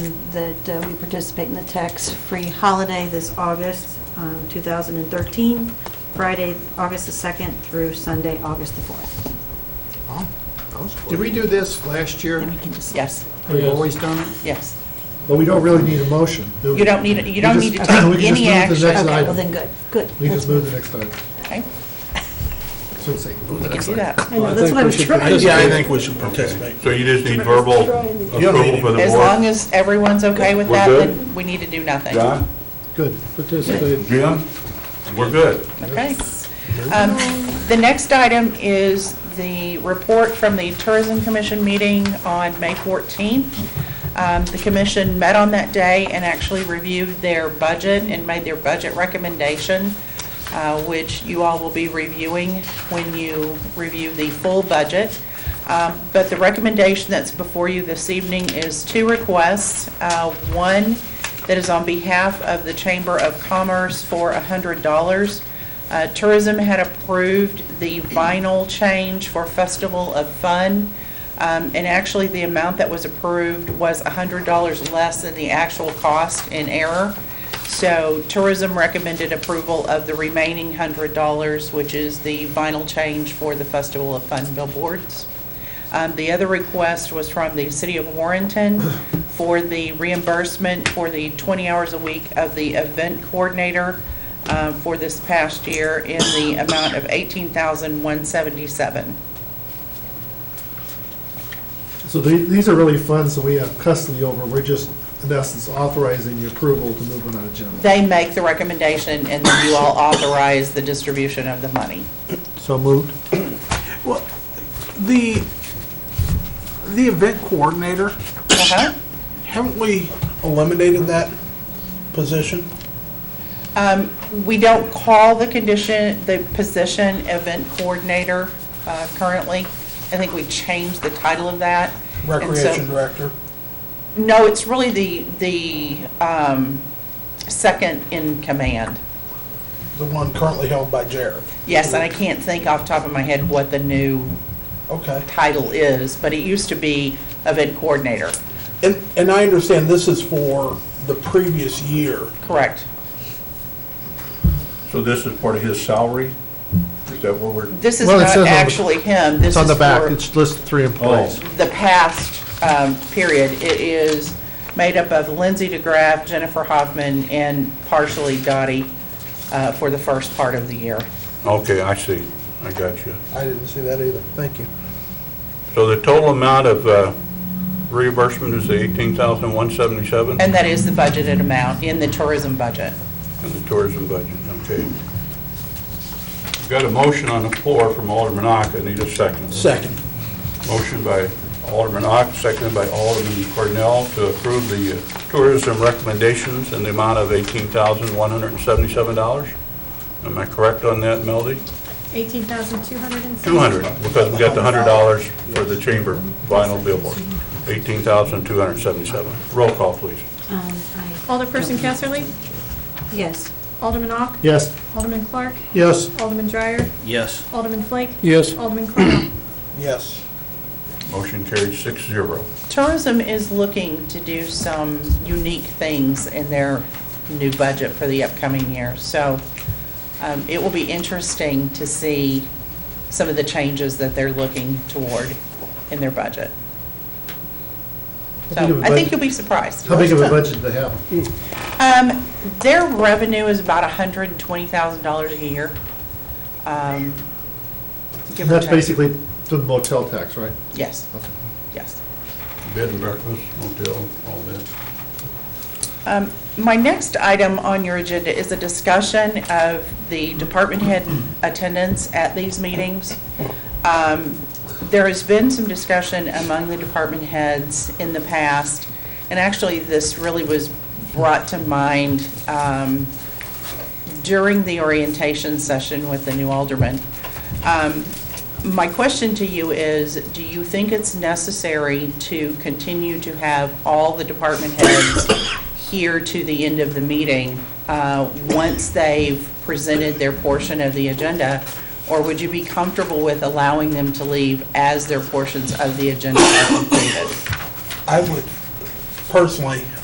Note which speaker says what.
Speaker 1: that uh, we participate in the tax-free holiday this August um, 2013, Friday, August the 2nd through Sunday, August the 4th.
Speaker 2: Oh, that was quick. Did we do this last year?
Speaker 3: Then we can just,
Speaker 4: Oh, Yes,
Speaker 2: We've always done it?
Speaker 4: yes.
Speaker 5: But we don't really need a motion, do we?
Speaker 4: You don't need, it- you don't
Speaker 5: We
Speaker 4: need to
Speaker 5: just-
Speaker 4: take
Speaker 5: we can just
Speaker 4: any
Speaker 5: move to the
Speaker 4: action.
Speaker 5: next
Speaker 1: Okay, well
Speaker 5: item.
Speaker 1: then, good, good.
Speaker 5: We can just move to the next item.
Speaker 4: Okay,
Speaker 2: So it's like, ooh,
Speaker 4: we can
Speaker 2: that's
Speaker 4: do
Speaker 2: like-
Speaker 4: that.
Speaker 1: I know, that's what I was trying.
Speaker 6: Yeah, I think we should participate.
Speaker 7: So you just need verbal approval for the
Speaker 4: As long
Speaker 7: board?
Speaker 4: as everyone's okay with
Speaker 7: We're
Speaker 4: that,
Speaker 7: good?
Speaker 4: then we need to do nothing.
Speaker 7: John?
Speaker 5: Good. Participate.
Speaker 7: Jim? We're good.
Speaker 4: Okay. Um, The next item is the report from the Tourism Commission meeting on May 14th. Um, The commission met on that day and actually reviewed their budget and made their budget recommendation, uh, which you all will be reviewing when you review the full budget. Um, But the recommendation that's before you this evening is two requests. Uh, One that is on behalf of the Chamber of Commerce for $100. Uh, Tourism had approved the vinyl change for Festival of Fun, um, and actually, the amount that was approved was $100 less than the actual cost in error. So tourism recommended approval of the remaining $100, which is the vinyl change for the Festival of Fun billboards. Um, The other request was from the City of Warrenton for the reimbursement for the 20 hours a week of the event coordinator uh, for this past year in the amount of $18,177.
Speaker 5: So the- these are really funds that we have custody over, we're just, in essence, authorizing the approval to move on an agenda.
Speaker 4: They make the recommendation, and then you all authorize the distribution of the money.
Speaker 5: So moved.
Speaker 6: Well, the, the event coordinator,
Speaker 4: Uh-huh.
Speaker 6: haven't we eliminated that position?
Speaker 4: Um, We don't call the condition, the position event coordinator uh, currently. I think we changed the title of that. And so-
Speaker 6: Recreation director?
Speaker 4: No, it's really the, the um, second in command.
Speaker 6: The one currently held by Jared.
Speaker 4: Yes, and I can't think off the top of my head what the new
Speaker 6: Okay.
Speaker 4: title is, but it used to be event coordinator,
Speaker 6: And, and I understand this is for the previous year.
Speaker 4: correct?
Speaker 7: So this is part of his salary? Is that what we're,
Speaker 4: This is
Speaker 5: Well, it
Speaker 4: not
Speaker 5: says on the-
Speaker 4: actually him, this is
Speaker 5: It's on the back,
Speaker 4: for-
Speaker 5: it's listed three employees.
Speaker 4: the past um, period. It is made up of Lindsay DeGraff, Jennifer Hoffman, and partially Dottie uh, for the first part of the year.
Speaker 7: Oh, okay, I see. I got you.
Speaker 6: I didn't see that either. Thank you.
Speaker 7: So the total amount of uh, reimbursement is the eighteen thousand one seventy-seven
Speaker 4: And that is the budgeted amount in the tourism budget.
Speaker 7: in the tourism budget, okay. Got a motion on the floor from Alderman Ock, I need a second.
Speaker 6: Second.
Speaker 7: Motion by Alderman Ock, seconded by Alderman Cornell to approve the uh, tourism recommendations in the amount of $18,177. Am I correct on that, Melody?
Speaker 8: 18,270.
Speaker 7: 200, because we got the $100 for the chamber vinyl billboard. 18,277. Roll call, please.
Speaker 1: Um, I-
Speaker 8: Alderperson Kesserly,
Speaker 1: Yes.
Speaker 8: Alderman Ock,
Speaker 5: Yes.
Speaker 8: Alderman Clark,
Speaker 5: Yes.
Speaker 8: Alderman Dreyer,
Speaker 9: Yes.
Speaker 8: Alderman Flake,
Speaker 5: Yes.
Speaker 8: Alderman Cornell.
Speaker 6: Yes.
Speaker 7: Motion carried six zero.
Speaker 4: Tourism is looking to do some unique things in their new budget for the upcoming year. So um, it will be interesting to see some of the changes that they're looking toward in their budget.
Speaker 5: How big of a
Speaker 4: So I think
Speaker 5: budget-
Speaker 4: you'll be surprised.
Speaker 5: How big of a budget do they have?
Speaker 4: Um, their revenue is about hundred and twenty thousand dollars a year. Um, give or
Speaker 5: That's
Speaker 4: take.
Speaker 5: basically the motel tax, right?
Speaker 4: Yes, yes.
Speaker 7: Bed and breakfast, motel, all that.
Speaker 4: Um, My next item on your agenda is a discussion of the department head attendance at these meetings. Um, There has been some discussion among the department heads in the past, and actually, this really was brought to mind um, during the orientation session with the new alderman. Um, My question to you is, do you think it's necessary to continue to have all the department heads here to the end of the meeting, uh, once they've presented their portion of the agenda? Or would you be comfortable with allowing them to leave as their portions of the agenda are completed?
Speaker 6: I would, personally,